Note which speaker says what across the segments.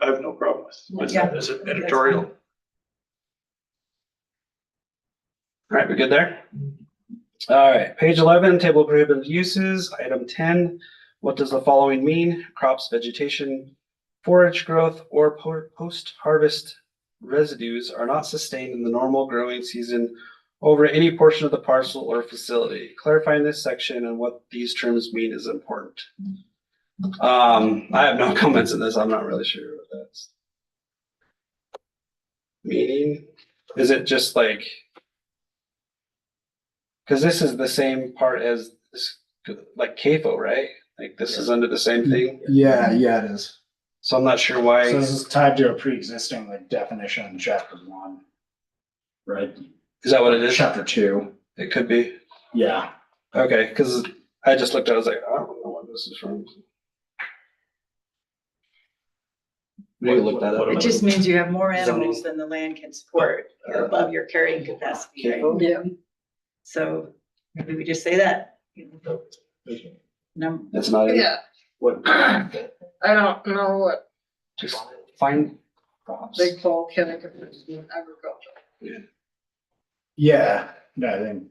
Speaker 1: I have no problem with.
Speaker 2: Yeah.
Speaker 1: It's an editorial. All
Speaker 3: Alright, we good there? Alright, page eleven, table of prohibited uses, item ten, what does the following mean? Crops, vegetation, forage growth, or po- post-harvest residues are not sustained in the normal growing season over any portion of the parcel or facility. Clarifying this section and what these terms mean is important. Um, I have no comments on this, I'm not really sure what that's. Meaning, is it just like? Cause this is the same part as this, like CAFO, right? Like this is under the same thing,
Speaker 4: Yeah, yeah, it is.
Speaker 3: so I'm not sure why.
Speaker 4: So this is tied to a pre-existing like definition in chapter one. Right?
Speaker 3: Is that what it is?
Speaker 4: Chapter two.
Speaker 3: It could be.
Speaker 4: Yeah.
Speaker 3: Okay, because I just looked, I was like, I don't know what this is from. We can look that
Speaker 1: What-
Speaker 3: up.
Speaker 1: what-
Speaker 2: It
Speaker 1: what
Speaker 2: just means you have more
Speaker 3: Zoning.
Speaker 2: animals than the land can support.
Speaker 5: Uh,
Speaker 2: You're above your carrying capacity. right?
Speaker 3: CAFO?
Speaker 6: Yeah.
Speaker 2: So maybe we just say that. Num-
Speaker 3: It's not, in-
Speaker 6: Yeah, I don't know what
Speaker 3: just find crops.
Speaker 6: they call cannabis in agriculture.
Speaker 4: Yeah, no, I think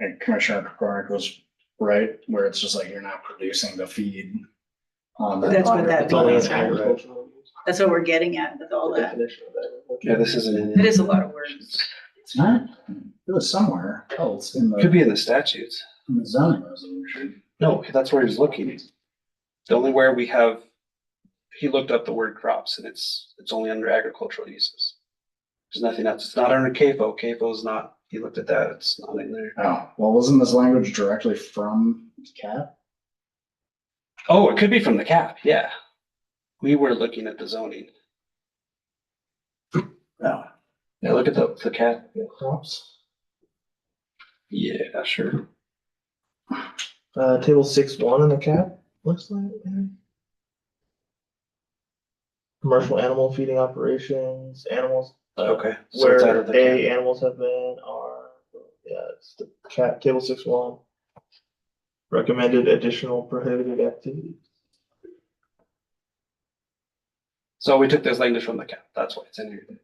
Speaker 4: like, Commissioner Cornick was right, where it's just like you're not producing the feed. on the-
Speaker 2: That's what that
Speaker 4: on the-
Speaker 2: means, right? That's what we're getting at with all that.
Speaker 3: Yeah, this isn't. in-
Speaker 2: It is a lot of words.
Speaker 4: It's not, it was somewhere else in
Speaker 3: Could
Speaker 4: the,
Speaker 3: be in the statutes.
Speaker 4: in the zoning resolution.
Speaker 3: No, that's where he's looking. The only where we have, he looked up the word crops and it's, it's only under agricultural uses. There's nothing else. It's not under CAFO. CAFO is not, he looked at that. It's not in there.
Speaker 4: Oh, well, wasn't this language directly from CAP?
Speaker 3: Oh, it could be from the cap, yeah. We were looking at the zoning.
Speaker 4: No.
Speaker 3: Yeah, look at the, the cap.
Speaker 4: Crops.
Speaker 3: Yeah, sure.
Speaker 5: Uh, table six one in the cap, looks like. maybe. Commercial animal feeding operations, animals, uh,
Speaker 3: Okay. So it's out
Speaker 5: where
Speaker 3: of the cap.
Speaker 5: A, animals have been, are, yeah, it's the cap, table six one. Recommended additional prohibited activities.
Speaker 3: So we took this language from the cap. That's why it's in here.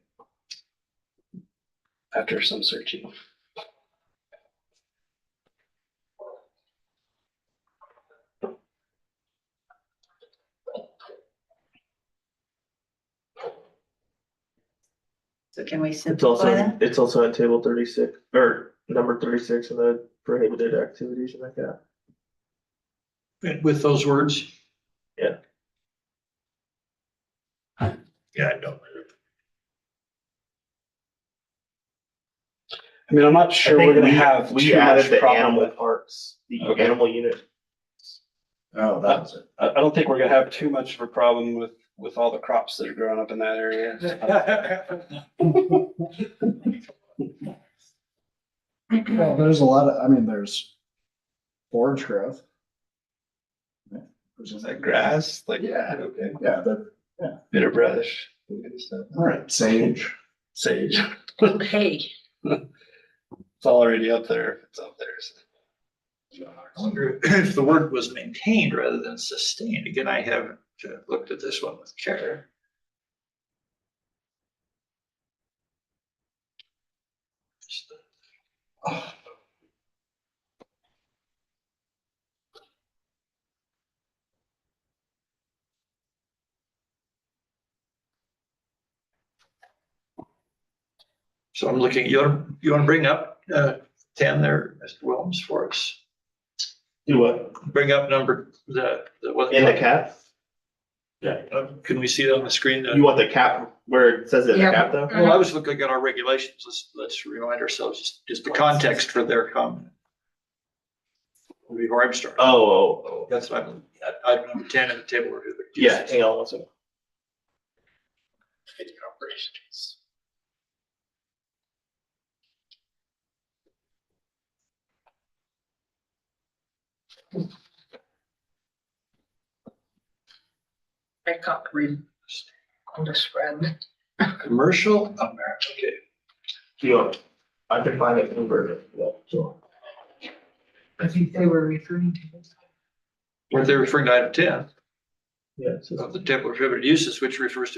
Speaker 3: After some searching.
Speaker 2: So can we
Speaker 5: It's
Speaker 2: simplify
Speaker 5: also,
Speaker 2: that?
Speaker 5: it's also in table thirty-six, or number thirty-six in the prohibited activities in the cap.
Speaker 1: And with those words?
Speaker 5: Yeah.
Speaker 1: Yeah, I don't.
Speaker 3: I mean, I'm not
Speaker 5: I
Speaker 3: sure
Speaker 5: think
Speaker 3: we're gonna
Speaker 5: we-
Speaker 3: have
Speaker 5: We
Speaker 3: too much
Speaker 5: added the
Speaker 3: problem
Speaker 5: animal
Speaker 3: with.
Speaker 5: parts, the
Speaker 3: Okay.
Speaker 5: animal unit.
Speaker 4: Oh, that was it.
Speaker 3: I, I don't think we're gonna have too much of a problem with, with all the crops that are growing up in that area.
Speaker 4: Well, there's a lot of, I mean, there's forage growth. Which
Speaker 3: Is
Speaker 4: is
Speaker 3: that grass, like?
Speaker 4: Yeah.
Speaker 3: Okay.
Speaker 4: Yeah, the,
Speaker 3: Bitter brush. that kind of stuff.
Speaker 4: all right, sage.
Speaker 3: Sage.
Speaker 6: Hey.
Speaker 3: It's already up there. It's up there. so.
Speaker 1: I wonder if the word was maintained rather than sustained. Again, I haven't uh, looked at this one with care. So I'm looking, you want, you want to bring up uh, ten there, Mr. Wilms, for us?
Speaker 5: Do what?
Speaker 1: Bring up number, the, the. what-
Speaker 5: In the cap?
Speaker 1: Yeah, uh, can we see it on the screen?
Speaker 5: You want the cap where it says it in the
Speaker 6: Yeah.
Speaker 5: cap though?
Speaker 1: Well, I was looking at our regulations. Let's, let's remind ourselves just, just the context for their comment. Before I'm starting.
Speaker 5: Oh, oh, oh.
Speaker 1: That's, I'm, item number ten in the table. of prohibited
Speaker 5: yeah,
Speaker 1: uses.
Speaker 5: hang on one second.
Speaker 6: I can't read on this red.
Speaker 1: Commercial America, okay.
Speaker 5: Do you want, I can find it converted, yeah, sure.
Speaker 6: I think they were referring to this.
Speaker 1: What they're referring to item ten
Speaker 5: Yeah, it says-
Speaker 1: of the table of prohibited uses, which refers to